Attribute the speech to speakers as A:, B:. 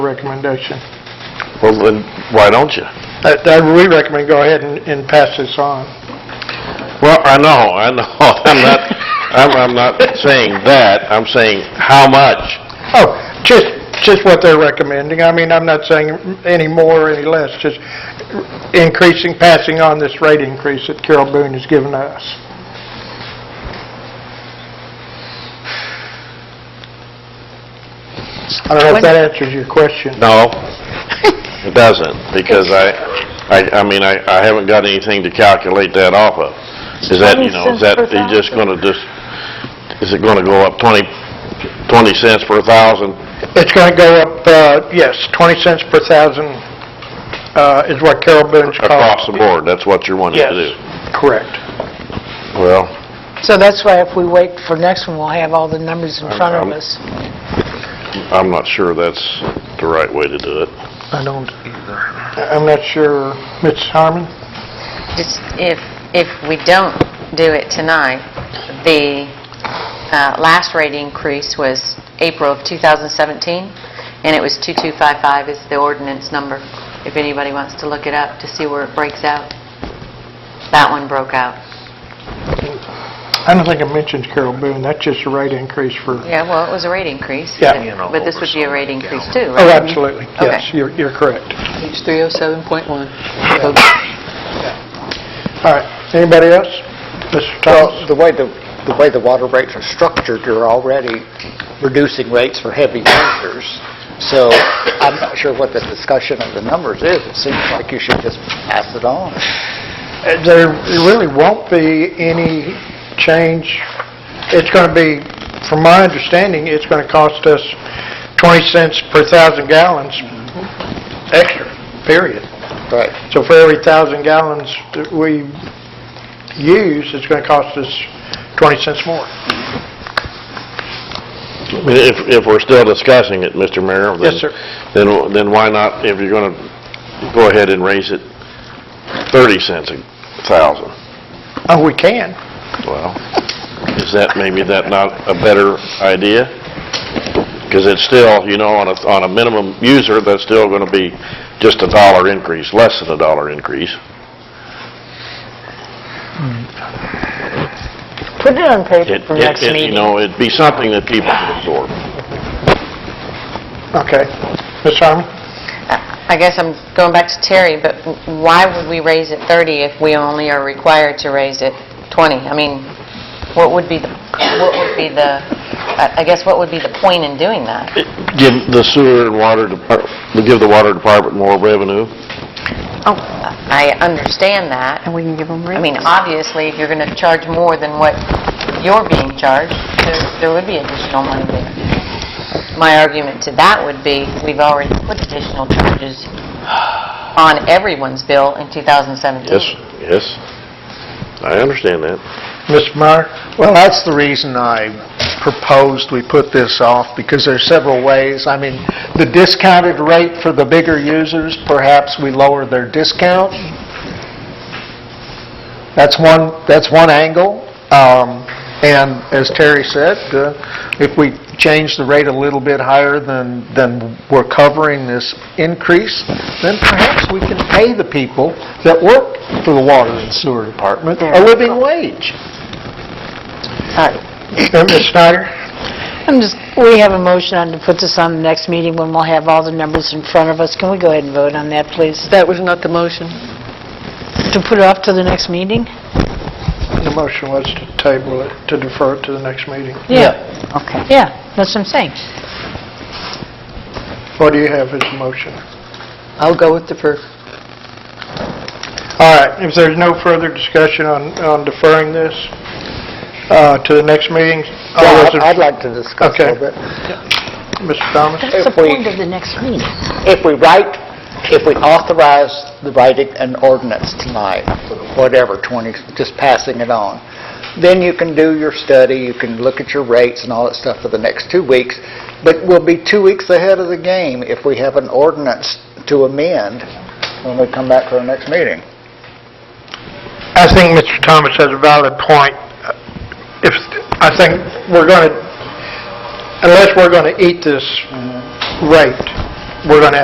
A: recommendation.
B: Well, then, why don't you?
A: I I- Uh, we recommend go ahead and and pass this on.
B: Well, I know, I know, I'm not, I'm, I'm not saying that, I'm saying how much?
A: Oh, just, just what they're recommending. I mean, I'm not saying any more or any less, just increasing, passing on this rate increase that Carol Boone has given us. I don't know if that answers your question.
B: No, it doesn't, because I, I, I mean, I, I haven't got anything to calculate that off of. Is that, you know, is that,
C: $0.20 per
B: you just gonna just, is it gonna go up 20, 20 cents per thousand?
A: It's going to go up, uh, yes, 20 cents per thousand uh, is what Carol Boone's
B: Across
A: cost.
B: the board, that's what you're wanting to do?
A: Yes, correct.
B: Well,
C: So that's why if we wait for next one, we'll have all the numbers in front of
B: I'm-
C: us.
B: I'm not sure that's the right way to do it.
A: I don't either. I'm not sure, Ms. Harmon?
D: Just if, if we don't do it tonight, the uh, last rate increase was April of 2017, and it was 2255 is the ordinance number, if anybody wants to look it up to see where it breaks out. That one broke out.
A: I don't think I mentioned Carol Boone, that's just a rate increase for, oh,
D: Yeah, well, it was a rate increase.
A: Yeah. Oh,
D: but- But this would be a rate increase too, right?
A: absolutely, yes,
D: Okay.
A: you're, you're correct.
E: Page 307.1.
A: All right, anybody else? Mr.
F: Well,
A: Thomas?
F: the way the, the way the water rates are structured, you're already reducing rates for heavy users. So I'm not sure what the discussion of the numbers is. It seems like you should just pass it on.
A: Uh, There really won't be any change, it's going to be, from my understanding, it's going to cost us 20 cents per thousand gallons extra, period.
F: Right.
A: So for every thousand gallons that we use, it's going to cost us 20 cents more.
B: I mean, If, if we're still discussing it, Mr. Mayor, then...
A: Yes, sir.
B: Then, then why not, if you're gonna go ahead and raise it 30 cents a thousand?
A: Oh, we can.
B: Well, is that, maybe that not a better idea? Because it's still, you know, on a, on a minimum user, that's still gonna be just a dollar increase, less than a dollar increase.
C: Put it on paper
B: It-
C: for
B: it-
C: next
B: it- You
C: meeting.
B: know, it'd be something that people could absorb.
A: Okay. Ms. Harmon?
D: I guess I'm going back to Terry, but why would we raise it 30 if we only are required to raise it 20? I mean, what would be the, what would be the, I I guess what would be the point in doing that?
B: Give the sewer and water depart, give the water department more revenue.
D: Oh, I understand that. And we can give them I mean, obviously, if you're going to charge more than what you're being charged, there- there would be additional money there. My argument to that would be, we've already put additional charges on everyone's bill in 2017.
B: Yes, yes. I understand that.
A: Ms. Meyer?
G: Well, that's the reason I proposed we put this off, because there's several ways. I mean, the discounted rate for the bigger users, perhaps we lower their discount. That's one, that's one angle. Um, And as Terry said, uh, if we change the rate a little bit higher than, than we're covering this increase, then perhaps we can pay the people that work for the water and sewer department a living wage.
A: Uh, Ms. Snyder?
C: I'm just, we have a motion on to put this on the next meeting when we'll have all the numbers in front of us. Can we go ahead and vote on that, please?
E: That was not the motion.
C: To put it off to the next meeting?
A: The motion was to table it, to defer it to the next meeting.
C: Yeah.
D: Okay.
C: Yeah, that's what I'm saying.
A: What do you have as a motion?
E: I'll go with the first.
A: All right, if there's no further discussion on on deferring this uh, to the next meeting, all
F: Yeah,
A: those
F: I'd
A: in-
F: I'd like to discuss a
A: Okay.
F: little bit.
A: Mr. Thomas?
C: That's the
F: If we-
C: point of the next meeting.
F: If we write, if we authorize the writing an ordinance tonight, whatever, 20, just passing it on, then you can do your study, you can look at your rates and all that stuff for the next two weeks, but we'll be two weeks ahead of the game if we have an ordinance to amend when we come back to our next meeting.
A: I think Mr. Thomas has a valid point. If, I think we're going to, unless we're going to eat this rate, we're going to have